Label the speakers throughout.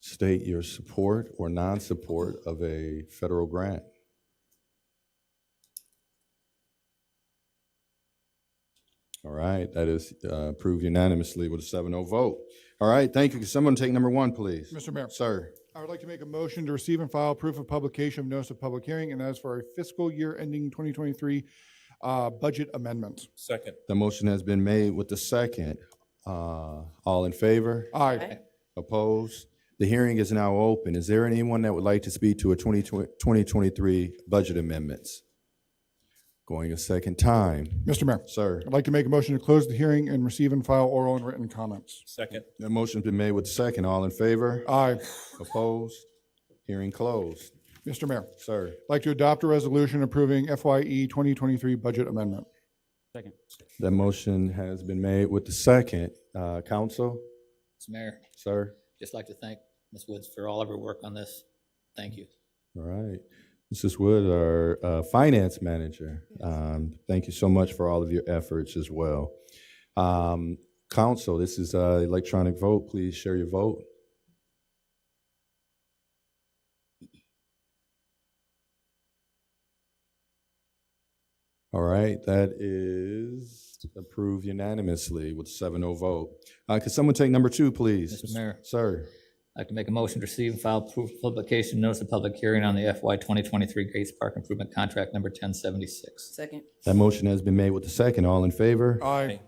Speaker 1: state your support or non-support of a federal grant. All right, that is uh, approved unanimously with a 7-0 vote. All right, thank you. Can someone take number one, please?
Speaker 2: Mr. Mayor,
Speaker 1: Sir,
Speaker 2: I would like to make a motion to receive and file proof of publication of notice of public hearing, and that is for our fiscal year ending 2023 uh, budget amendment.
Speaker 3: Second.
Speaker 1: the motion has been made with the second. Uh, All in favor?
Speaker 2: Aye.
Speaker 1: Opposed? The hearing is now open. Is there anyone that would like to speak to a 2020 2023 budget amendments? Going a second time.
Speaker 2: Mr. Mayor,
Speaker 1: Sir,
Speaker 2: I'd like to make a motion to close the hearing and receive and file oral and written comments.
Speaker 3: Second.
Speaker 1: the motion's been made with the second. All in favor?
Speaker 2: Aye.
Speaker 1: Opposed? Hearing closed.
Speaker 2: Mr. Mayor,
Speaker 1: Sir,
Speaker 2: I'd like to adopt a resolution approving FYE 2023 budget amendment.
Speaker 4: Second.
Speaker 1: that motion has been made with the second. Uh, Counsel,
Speaker 4: Mr. Mayor,
Speaker 1: sir?
Speaker 4: just like to thank Ms. Woods for all of her work on this. Thank you.
Speaker 1: All right. Mrs. Wood, our uh, finance manager, um, thank you so much for all of your efforts as well. Um, Council, this is uh, electronic vote. Please share your vote. All right, that is approved unanimously with 7-0 vote. Uh, Could someone take number two, please?
Speaker 4: Mr. Mayor.
Speaker 1: Sir,
Speaker 4: I'd like to make a motion to receive and file proof of publication, notice of public hearing on the FY 2023 Gates Park Improvement Contract Number 1076.
Speaker 5: Second,
Speaker 1: that motion has been made with the second. All in favor?
Speaker 2: Aye.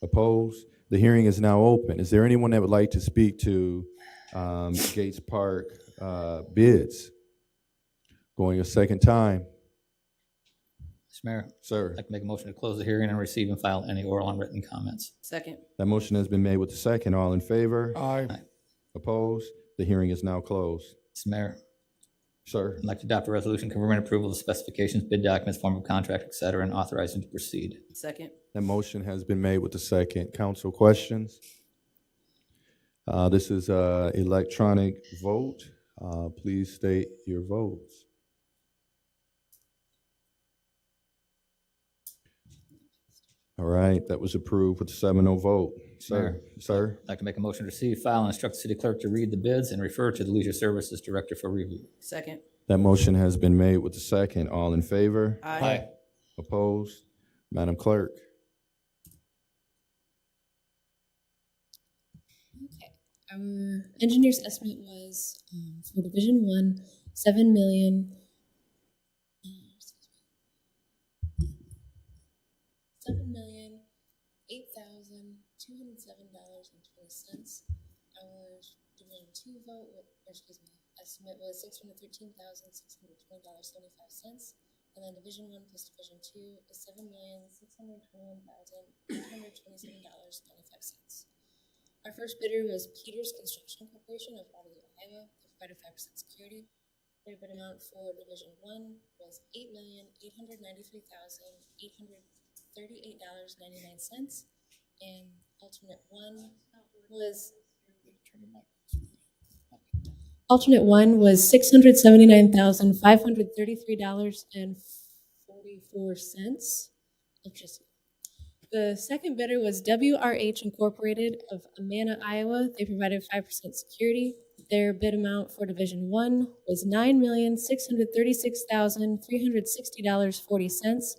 Speaker 1: Opposed? The hearing is now open. Is there anyone that would like to speak to um, Gates Park uh, bids? Going a second time,
Speaker 4: Mr. Mayor,
Speaker 1: sir.
Speaker 4: I'd like to make a motion to close the hearing and receive and file any oral and written comments.
Speaker 5: second,
Speaker 1: That motion has been made with the second. All in favor?
Speaker 2: Aye.
Speaker 1: Opposed? The hearing is now closed.
Speaker 4: Mr. Mayor,
Speaker 1: Sir,
Speaker 4: I'd like to adopt a resolution confirming approval of specifications, bid documents, form of contract, et cetera, and authorizing to proceed.
Speaker 5: second,
Speaker 1: that motion has been made with the second. Council questions? Uh, This is uh, electronic vote. Uh, Please state your votes. All right, that was approved with a 7-0 vote. Sir,
Speaker 4: Mayor.
Speaker 1: sir,
Speaker 4: I'd like to make a motion to receive, file, and instruct the city clerk to read the bids and refer to the Leisure Services Director for review.
Speaker 5: second,
Speaker 1: that motion has been made with the second. All in favor?
Speaker 5: aye.
Speaker 1: Opposed? Madam Clerk?
Speaker 6: our Um, engineer's estimate was um, for Division One, seven million. Seven million, eight thousand, two hundred seven dollars and twenty cents. Our Division Two vote, wa- or excuse me, estimate was six hundred thirteen thousand, six hundred twenty dollars, seventy-five cents. And then Division One plus Division Two is seven million, six hundred twenty-one thousand, eight hundred twenty-seven dollars, ninety-five cents. Our first bidder was Peters Construction Corporation of Waterloo, Iowa, that provided five percent security. Their bid amount for Division One was eight million, eight hundred ninety-three thousand, eight hundred thirty-eight dollars, ninety-nine cents. And alternate one was. Alternate one was six hundred seventy-nine thousand, five hundred thirty-three dollars and forty-four cents. Electricity. The second bidder was WRH Incorporated of Amana, Iowa. They provided five percent security. Their bid amount for Division One was nine million, six hundred thirty-six thousand, three hundred sixty dollars, forty cents.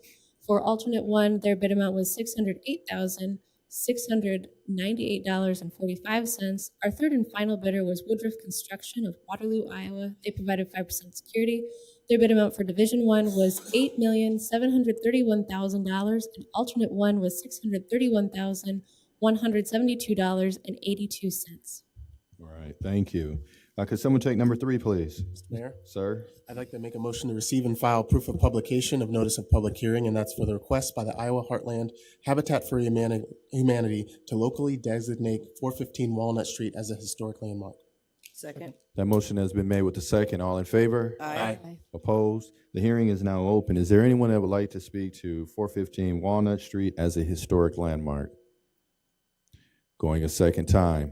Speaker 6: For alternate one, their bid amount was six hundred eight thousand, six hundred ninety-eight dollars and forty-five cents. Our third and final bidder was Woodruff Construction of Waterloo, Iowa. They provided five percent security. Their bid amount for Division One was eight million, seven hundred thirty-one thousand dollars, and alternate one was six hundred thirty-one thousand, one hundred seventy-two dollars and eighty-two cents.
Speaker 1: All right, thank you. Uh, Could someone take number three, please?
Speaker 7: Mayor,
Speaker 1: Sir,
Speaker 7: I'd like to make a motion to receive and file proof of publication of notice of public hearing, and that's for the request by the Iowa Heartland Habitat for Humani- Humanity to locally designate 415 Walnut Street as a historic landmark.
Speaker 5: Second,
Speaker 1: that motion has been made with the second. All in favor?
Speaker 5: aye.
Speaker 1: Opposed? The hearing is now open. Is there anyone that would like to speak to 415 Walnut Street as a historic landmark? Going a second time.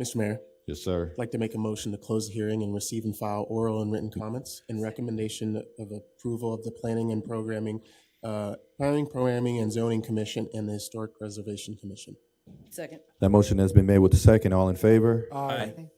Speaker 7: Mr. Mayor,
Speaker 1: Yes, sir.
Speaker 7: I'd like to make a motion to close the hearing and receive and file oral and written comments and recommendation of approval of the Planning and Programming, uh, Planning, Programming and Zoning Commission and the Historic Preservation Commission.
Speaker 5: Second,
Speaker 1: That motion has been made with the second. All in favor?
Speaker 2: Aye.